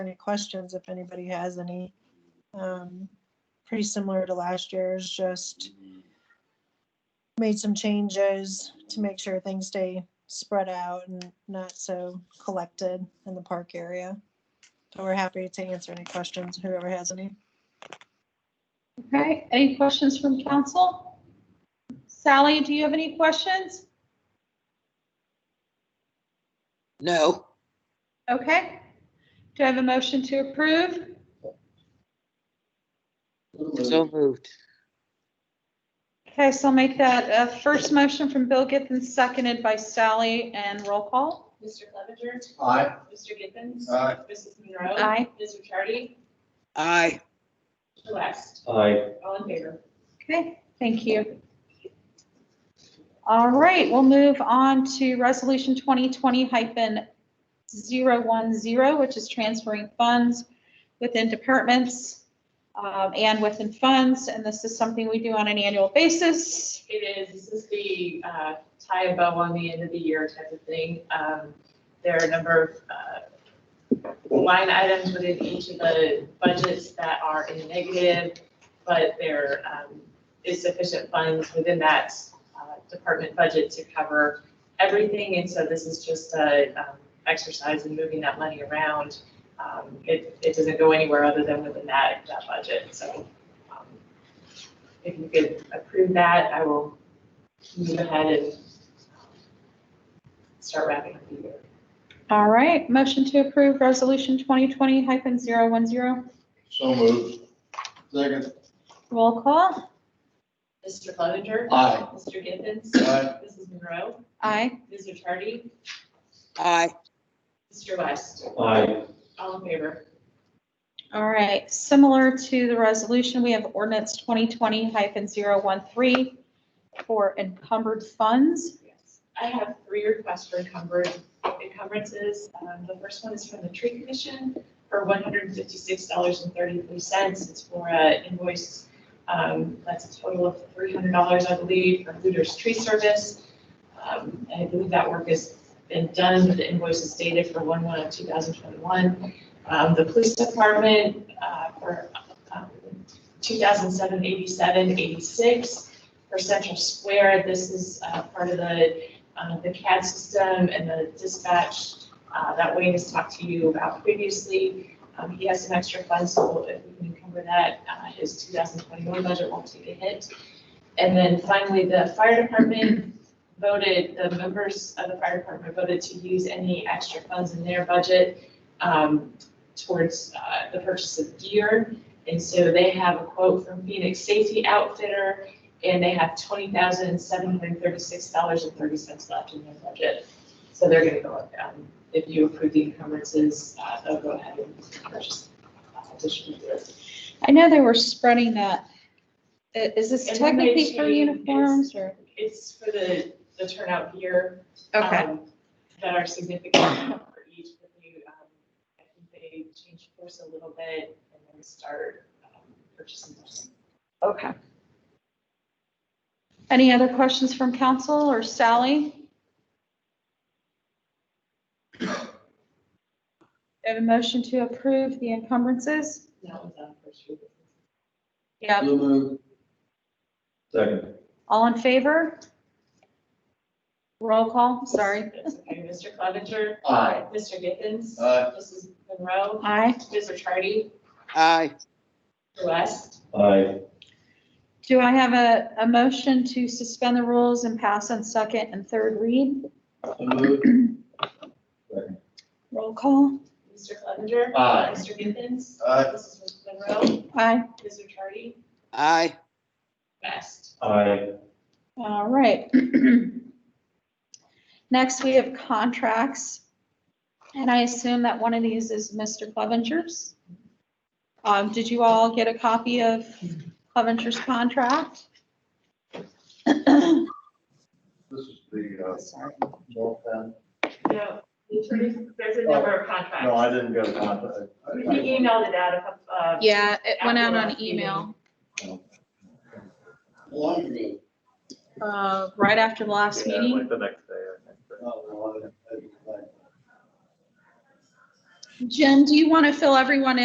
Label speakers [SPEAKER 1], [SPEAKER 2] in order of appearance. [SPEAKER 1] any questions if anybody has any. Um, Pretty similar to last year's, just made some changes to make sure things stay spread out and not so collected in the park area. So we're happy to answer any questions, whoever has any.
[SPEAKER 2] Okay, any questions from council? Sally, do you have any questions?
[SPEAKER 3] No,
[SPEAKER 2] Okay. Do I have a motion to approve?
[SPEAKER 3] so moved.
[SPEAKER 2] Okay, so I'll make that a first motion from Bill Githens, seconded by Sally, and roll call.
[SPEAKER 4] Mr. Clevenger.
[SPEAKER 5] Aye.
[SPEAKER 4] Mr. Githens.
[SPEAKER 5] Aye.
[SPEAKER 4] Mrs. Monroe.
[SPEAKER 2] Aye.
[SPEAKER 4] Ms. Charity.
[SPEAKER 3] Aye,
[SPEAKER 4] Mr. West.
[SPEAKER 5] Aye.
[SPEAKER 4] All in favor.
[SPEAKER 2] Okay, thank you. All right, we'll move on to Resolution 2020 hyphen 010, which is transferring funds within departments um, and within funds, and this is something we do on an annual basis.
[SPEAKER 4] It is, this is the uh, tie a bow on the end of the year type of thing. Um, There are a number of uh, line items within each of the budgets that are in the negative, but there um, is sufficient funds within that uh, department budget to cover everything. And so this is just an exercise in moving that money around. Um, It, it doesn't go anywhere other than within that, that budget, so. um, If you could approve that, I will move ahead and start wrapping up the year.
[SPEAKER 2] All right, motion to approve resolution 2020 hyphen 010.
[SPEAKER 5] So moved. Second.
[SPEAKER 2] Roll call.
[SPEAKER 4] Mr. Clevenger.
[SPEAKER 5] Aye.
[SPEAKER 4] Mr. Githens.
[SPEAKER 5] Aye.
[SPEAKER 4] Mrs. Monroe.
[SPEAKER 2] Aye.
[SPEAKER 4] Ms. Charity.
[SPEAKER 3] aye,
[SPEAKER 4] Mr. West.
[SPEAKER 5] Aye.
[SPEAKER 4] All in favor.
[SPEAKER 2] All right, similar to the resolution, we have ordinance 2020 hyphen 013 for encumbered funds.
[SPEAKER 4] Yes. I have three requests for encumbrance, encumbrances. Um, the first one is from the tree commission for one hundred and fifty-six dollars and thirty-three cents. It's for an invoice, um, that's a total of three hundred dollars, I believe, for Hooters Tree Service. Um, and I believe that work has been done. The invoice is dated for one one of two thousand twenty-one. Um, the police department, uh, for, um, two thousand seven eighty-seven eighty-six for Central Square. This is uh, part of the, uh, the CAD system and the dispatch uh, that Wayne has talked to you about previously. Um, He has some extra funds, so if we can cover that, uh, his 2021 budget won't take a hit. And then finally, the fire department voted, the members of the fire department voted to use any extra funds in their budget um, towards uh, the purchase of gear. And so they have a quote from Phoenix Safety Outfitter and they have twenty thousand seven hundred thirty-six dollars and thirty cents left in their budget. So they're gonna go up, um, if you approve the encumbrances, uh, they'll go ahead and purchase uh, additional gear.
[SPEAKER 2] I know they were spreading that. I- Is this
[SPEAKER 4] And then they
[SPEAKER 2] technically for
[SPEAKER 4] changed-
[SPEAKER 2] uniforms or?
[SPEAKER 4] It's for the, the turnout gear. um, That are significant for each of you. Um, I think they changed course a little bit and then start um, purchasing. those.
[SPEAKER 2] Okay. Any other questions from council or Sally? I Have a motion to approve the encumbrances?
[SPEAKER 4] That was on first reading.
[SPEAKER 2] Yeah.
[SPEAKER 5] So moved. Second.
[SPEAKER 2] All in favor? Roll call, sorry.
[SPEAKER 4] That's okay. Mr. Clevenger.
[SPEAKER 5] Aye.
[SPEAKER 4] Mr. Githens.
[SPEAKER 5] Aye.
[SPEAKER 4] Mrs. Monroe.
[SPEAKER 2] Aye.
[SPEAKER 4] Mr. Chardy,
[SPEAKER 3] aye,
[SPEAKER 4] Mr. West,
[SPEAKER 5] Aye.
[SPEAKER 2] Do I have a, a motion to suspend the rules and pass on second and third read?
[SPEAKER 5] So moved. Second.
[SPEAKER 2] Roll call.
[SPEAKER 4] Mr. Clevenger.
[SPEAKER 5] Aye.
[SPEAKER 4] Mr. Githens.
[SPEAKER 5] Aye.
[SPEAKER 4] Mrs. Monroe,
[SPEAKER 2] Aye.
[SPEAKER 4] Mr. Chardy,
[SPEAKER 3] aye,
[SPEAKER 4] West.
[SPEAKER 5] Aye.
[SPEAKER 2] All right. Next, we have contracts. And I assume that one of these is Mr. Clevenger's. Um, did you all get a copy of Clevenger's contract?
[SPEAKER 5] This is the,
[SPEAKER 4] Sorry.
[SPEAKER 5] uh, North End.
[SPEAKER 4] No, the attorney- there's a number of contracts.
[SPEAKER 5] No, I didn't get a contact.
[SPEAKER 4] He emailed it out a couple, uh,
[SPEAKER 2] Yeah, it
[SPEAKER 4] went out on email,
[SPEAKER 5] Long ago.
[SPEAKER 2] uh, right after the last
[SPEAKER 6] Yeah,
[SPEAKER 2] meeting.
[SPEAKER 5] Oh,
[SPEAKER 6] Like the next day, I think. but-
[SPEAKER 5] No, no, I didn't- I didn't like
[SPEAKER 2] Jen, do you want to fill everyone in?